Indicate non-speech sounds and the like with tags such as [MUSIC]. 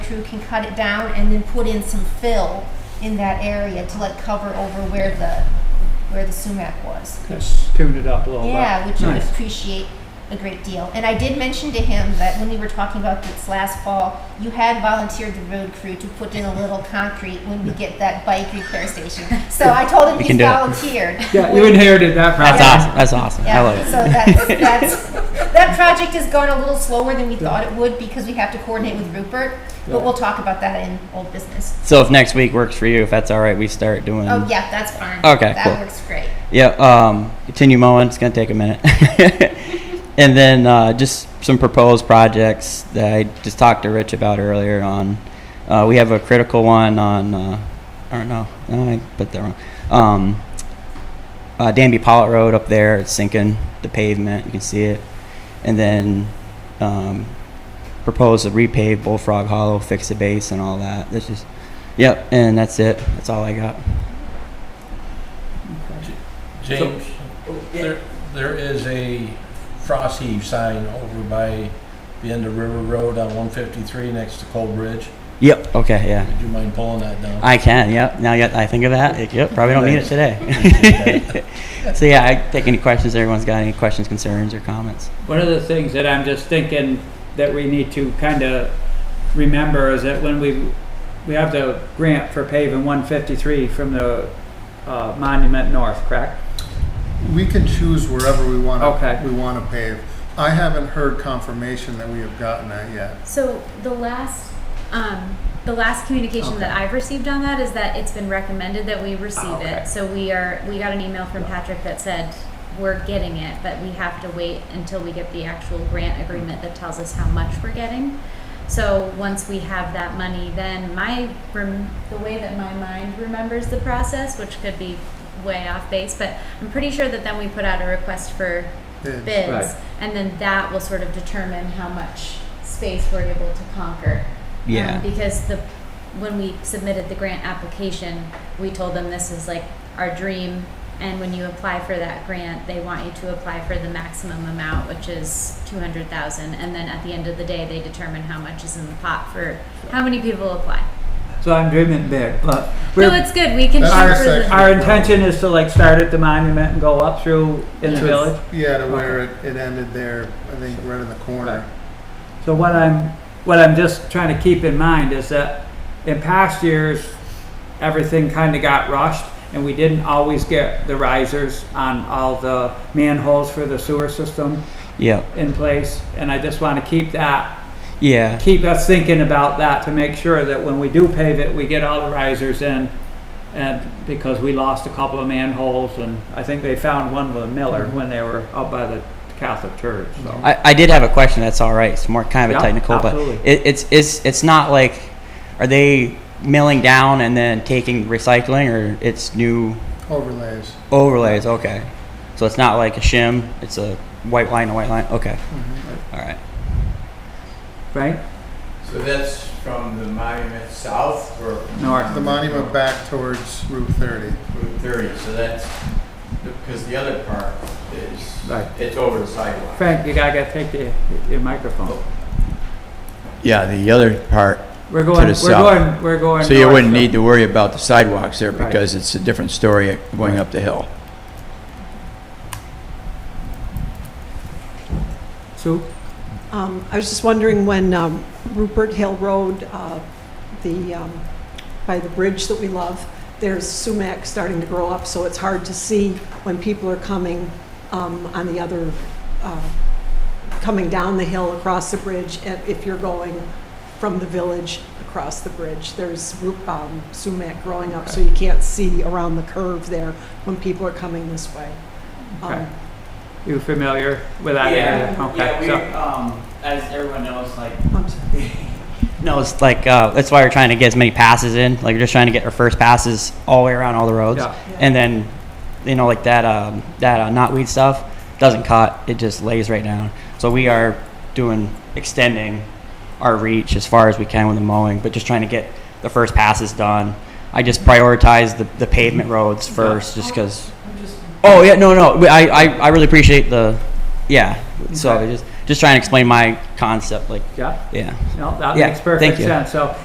crew can cut it down and then put in some fill in that area to let cover over where the, where the sumac was. Just tune it up a little bit. Yeah, which I Nice. appreciate a great deal. And I did mention to him that when we were talking about this last fall, you had volunteered the road crew to put in a little concrete when we get that bike repair station. So I told him We he's can do it. volunteered. Yeah, you inherited that project. That's awesome. That's awesome. I love Yeah, it. so that's, that's, that project has gone a little slower than we thought it would because we have to coordinate with Rupert, Yeah. but we'll talk about that in old business. So if next week works for you, if that's all right, we start doing. Oh, yeah, that's fine. Okay, cool. That works great. Yeah, um, continue mowing. It's gonna take a minute. [LAUGHS] and then uh, just some proposed projects that I just talked to Rich about earlier on. Uh, we have a critical one on, uh, I don't know, no, I put that wrong. Um, uh, Danby Pollitt Road up there, it's sinking the pavement, you can see it. And then um, propose to repave Bullfrog Hollow, fix the base and all that. This is, yep, and that's it. That's all I got. James, there, there is a frost heave sign over by the end of River Road on one fifty-three next to Cold Bridge. Yep, okay, yeah. Would you mind pulling that down? I can, yep. Now yet I think of that, yep, probably don't need it today. [LAUGHS] So yeah, I take any questions, everyone's got any questions, concerns, or comments? One of the things that I'm just thinking that we need to kind of remember is that when we, we have the grant for paving 153 from the uh, Monument North, correct? We can choose wherever we want Okay. to, we want to pave. I haven't heard confirmation that we have gotten that yet. So the last, um, the last communication that I've received on that is that it's been recommended that we receive okay. it. So we are, we got an email from Patrick that said, we're getting it, but we have to wait until we get the actual grant agreement that tells us how much we're getting. So once we have that money, then my, rem- the way that my mind remembers the process, which could be way off base, but I'm pretty sure that then we put out a request for Bids. bids, Right. and then that will sort of determine how much space we're able to conquer. Um, Yeah. because the when we submitted the grant application, we told them this is like our dream, and when you apply for that grant, they want you to apply for the maximum amount, which is two hundred thousand, and then at the end of the day, they determine how much is in the pot for how many people apply. So I'm dreaming big, but So we're, it's good. We can That's shoot our for the section. our intention is to like start at the monument and go up through in the Yes. village. Yeah, to where it, it ended there, I think, right in the corner. So what I'm, what I'm just trying to keep in mind is that in past years, everything kind of got rushed and we didn't always get the risers on all the manholes for the sewer system Yep, in place. And I just want to keep that, yeah, keep us thinking about that to make sure that when we do pave it, we get all the risers in. And because we lost a couple of manholes and I think they found one with Miller when they were up by the Catholic church, so. I, I did have a question, that's all right, it's more kind of a Yeah, technical, but absolutely. it, it's, it's, it's not like, are they milling down and then taking recycling, or it's new Overlays. overlays, okay? So it's not like a shim, it's a white line, a white line, okay, Mm-hmm. all right. Right? So that's from the monument south or from North. The monument back towards Route 30. Route 30, so that's, because the other part is, Right. it's over the sidewalk. Frank, you gotta gotta take the, your microphone. Yeah, the other part, We're going, we're the south. going, we're going. so you north, wouldn't need to worry about the sidewalks there Right. because it's a different story going up the hill. Sue, Um, I was just wondering when um, Rupert Hill Road, uh, the, um, by the bridge that we love, there's sumac starting to grow up, so it's hard to see when people are coming um, on the other, uh, coming down the hill across the bridge, and if you're going from the village across the bridge, there's ru- um, sumac growing up, so you can't see around the curve there when people are coming this way. Um, Okay. you familiar with that area? Okay, so, um, as everyone knows, like I'm sorry. No, it's like uh, that's why we're trying to get as many passes in. Like we're just trying to get our first passes all the way around all the roads, Yeah. and then you know like that um, that uh, knotweed stuff doesn't cut; it just lays right down. So we are doing extending our reach as far as we can with the mowing, but just trying to get the first passes done. I just prioritize the, the pavement roads first, just because. Oh yeah, no, no, we- I, I, I really appreciate the, yeah. So Okay. I just just trying to explain my concept, like yeah, yeah. no, that Yeah, makes thank perfect you. sense, so.